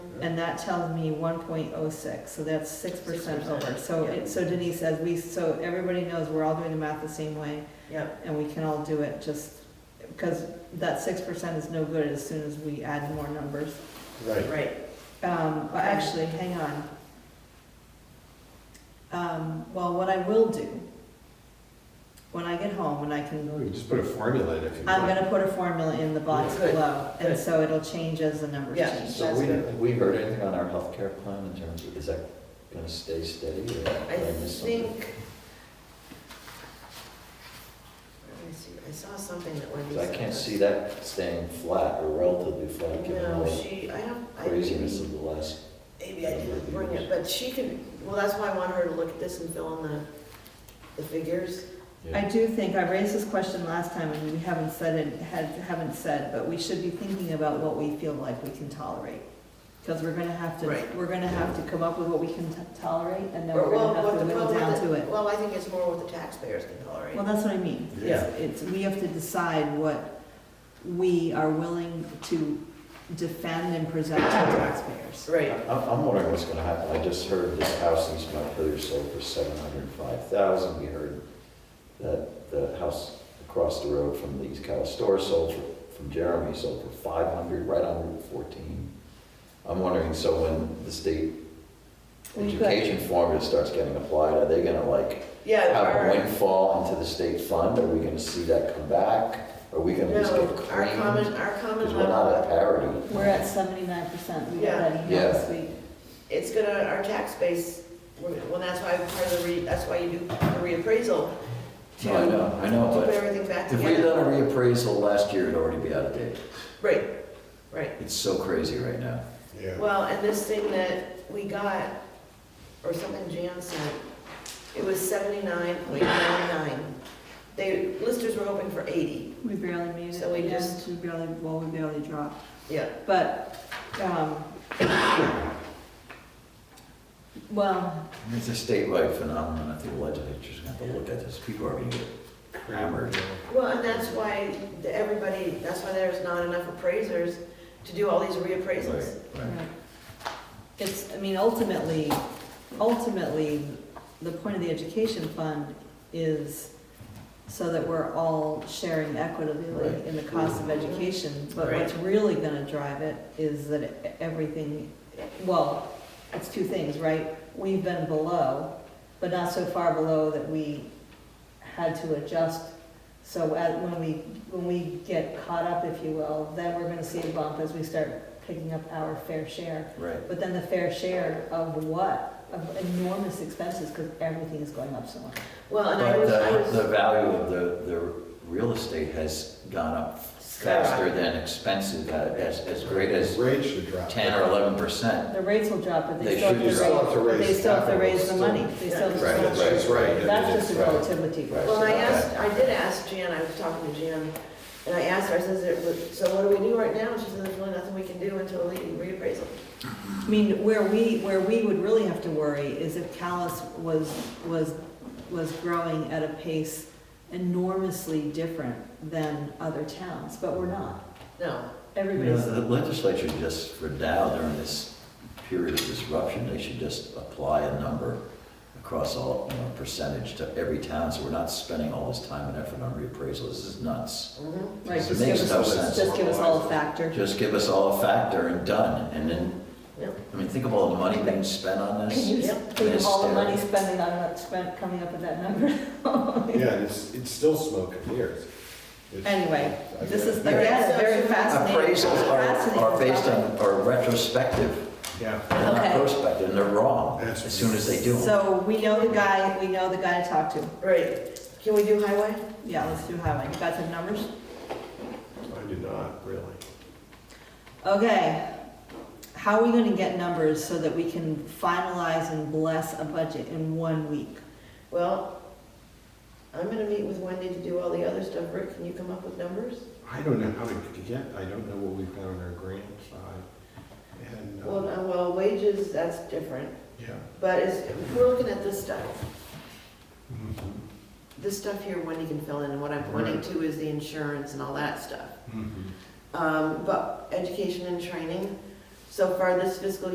and that tells me one point oh six, so that's six percent 6%, over. So, yeah. it- so Denise says, we, so everybody knows we're all doing the math the same way, Yep, and we can all do it just, because that six percent is no good as soon as we add more numbers. Right, right. Um, but actually, hang on. Um, well, what I will do, when I get home, when I can we can just put a formula in if you I'm want. gonna put a formula in the box Good, below, and good. so it'll change as the numbers Yeah. change. So we, have we heard anything on our healthcare plan in terms of, is that gonna stay steady or? did I miss something? think. Let me see, I saw something that Wendy 'Cause I said. can't see that staying flat or relatively flat, given No, all the she, I don't, I, craziness maybe of the last. maybe I didn't bring it, but she can, well, that's why I want her to look at this and fill in the, the figures. I do think, I raised this question last time, and we haven't said it, had, haven't said, but we should be thinking about what we feel like we can tolerate. Cause we're gonna have to, Right. we're gonna have to come up with what we can t- tolerate, and then Or, we're well, gonna have what to the whittle problem down with to the- it. Well, I think it's more what the taxpayers can tolerate. Well, that's what I mean. Yeah. It's, we have to decide what we are willing to defend and present to taxpayers. Right, I'm, I'm wondering what's gonna happen. I just heard this house in East Montpelier sold for seven hundred and five thousand. We heard that the house across the road from the East Cal store sold for, from Jeremy sold for five hundred, right on Route fourteen. I'm wondering, so when the state We've got- education formula starts getting applied, are they gonna like yeah, have a our, windfall into the state fund? Are we gonna see that come back? Are we gonna just get no, our common, creamed? our common Because we're not level, at parity. We're at seventy-nine percent, we got Yeah. that email this week. it's gonna, our tax base, we're- well, that's why part of the re, that's why you do a reappraisal. to No, I know, I know, Put but everything back If we had together. done a reappraisal last year, it'd already be out of date. Right, right. It's so crazy right now. Yeah. Well, and this thing that we got, or something Jan sent, it was seventy-nine point nine nine. They, listers were hoping for eighty, We barely made it. So we Yeah, just- We barely, well, we barely dropped, yeah. but, um, well, It's a statewide phenomenon. I think the legislature's gonna have to look at this. People are gonna get hammered. Well, and that's why the- everybody, that's why there's not enough appraisers to do all these reappraisals. Right, right. it's, I mean, ultimately, ultimately, the point of the education fund is so that we're all sharing equitably Right. in the cost of education, but what's really gonna drive it is that everything, well, it's two things, right? We've been below, but not so far below that we had to adjust. So at- when we, when we get caught up, if you will, then we're gonna see a bump as we start picking up our fair share. Right. But then the fair share of what? Of enormous expenses, because everything is going up so much. Well, and I But uh, was, I was. the, the value of the, the real estate has gone up faster than expensive, uh, as, as great as Rate should drop. ten or eleven percent. The rates will drop, but They they still should- you still have have to to raise, but they raise still have to capital, raise the still. money. They still have to. Right, That's that's right. That's just a Right. relativity. Right. Well, I asked, I did ask Jan, I was talking to Jan, and I asked her, I says, "There was- so what do we do right now? And she said, there's really nothing we can do until the reappraisal. I mean, where we, where we would really have to worry is if Callis was, was, was growing at a pace enormously different than other towns, but we're not. No, You know, Everybody's, The legislature just, for now, during this period of disruption, they should just apply a number across all, you know, percentage to every town, so we're not spending all this time and effort on reappraisal, this is nuts. mhm, right, it just give makes us, no all- sense. just give us all a factor. Just give us all a factor and done, and then, Yep. I mean, think of all the money being spent on Can this. you Yep. think of all the money Hysterical. spending on that, spent, coming up with that number? Yeah, and it's, it's still smoke and mirrors. It's- Anyway, I this get is, it. again, very fascinating. Appraisals are, are fascinating based topic. on, are retrospective, Yeah. they're not Okay. prospective, and they're wrong, That's as soon as they do them. So we know the guy, we know the guy to talk to. right. Can we do highway? Yeah, let's do highway. You got some numbers? I do not, really. Okay, how are we gonna get numbers so that we can finalize and bless a budget in one week? Well, I'm gonna meet with Wendy to do all the other stuff. Rick, can you come up with numbers? I don't know how to get, I don't know what we've got on our grant side. And, Well, uh, no, well, wages, that's different, yeah. but is, we're looking at this stuff. Mm-hmm. This stuff here Wendy can fill in, and what I'm pointing to is the insurance and all that stuff. Mhm. um, but education and training. So far this fiscal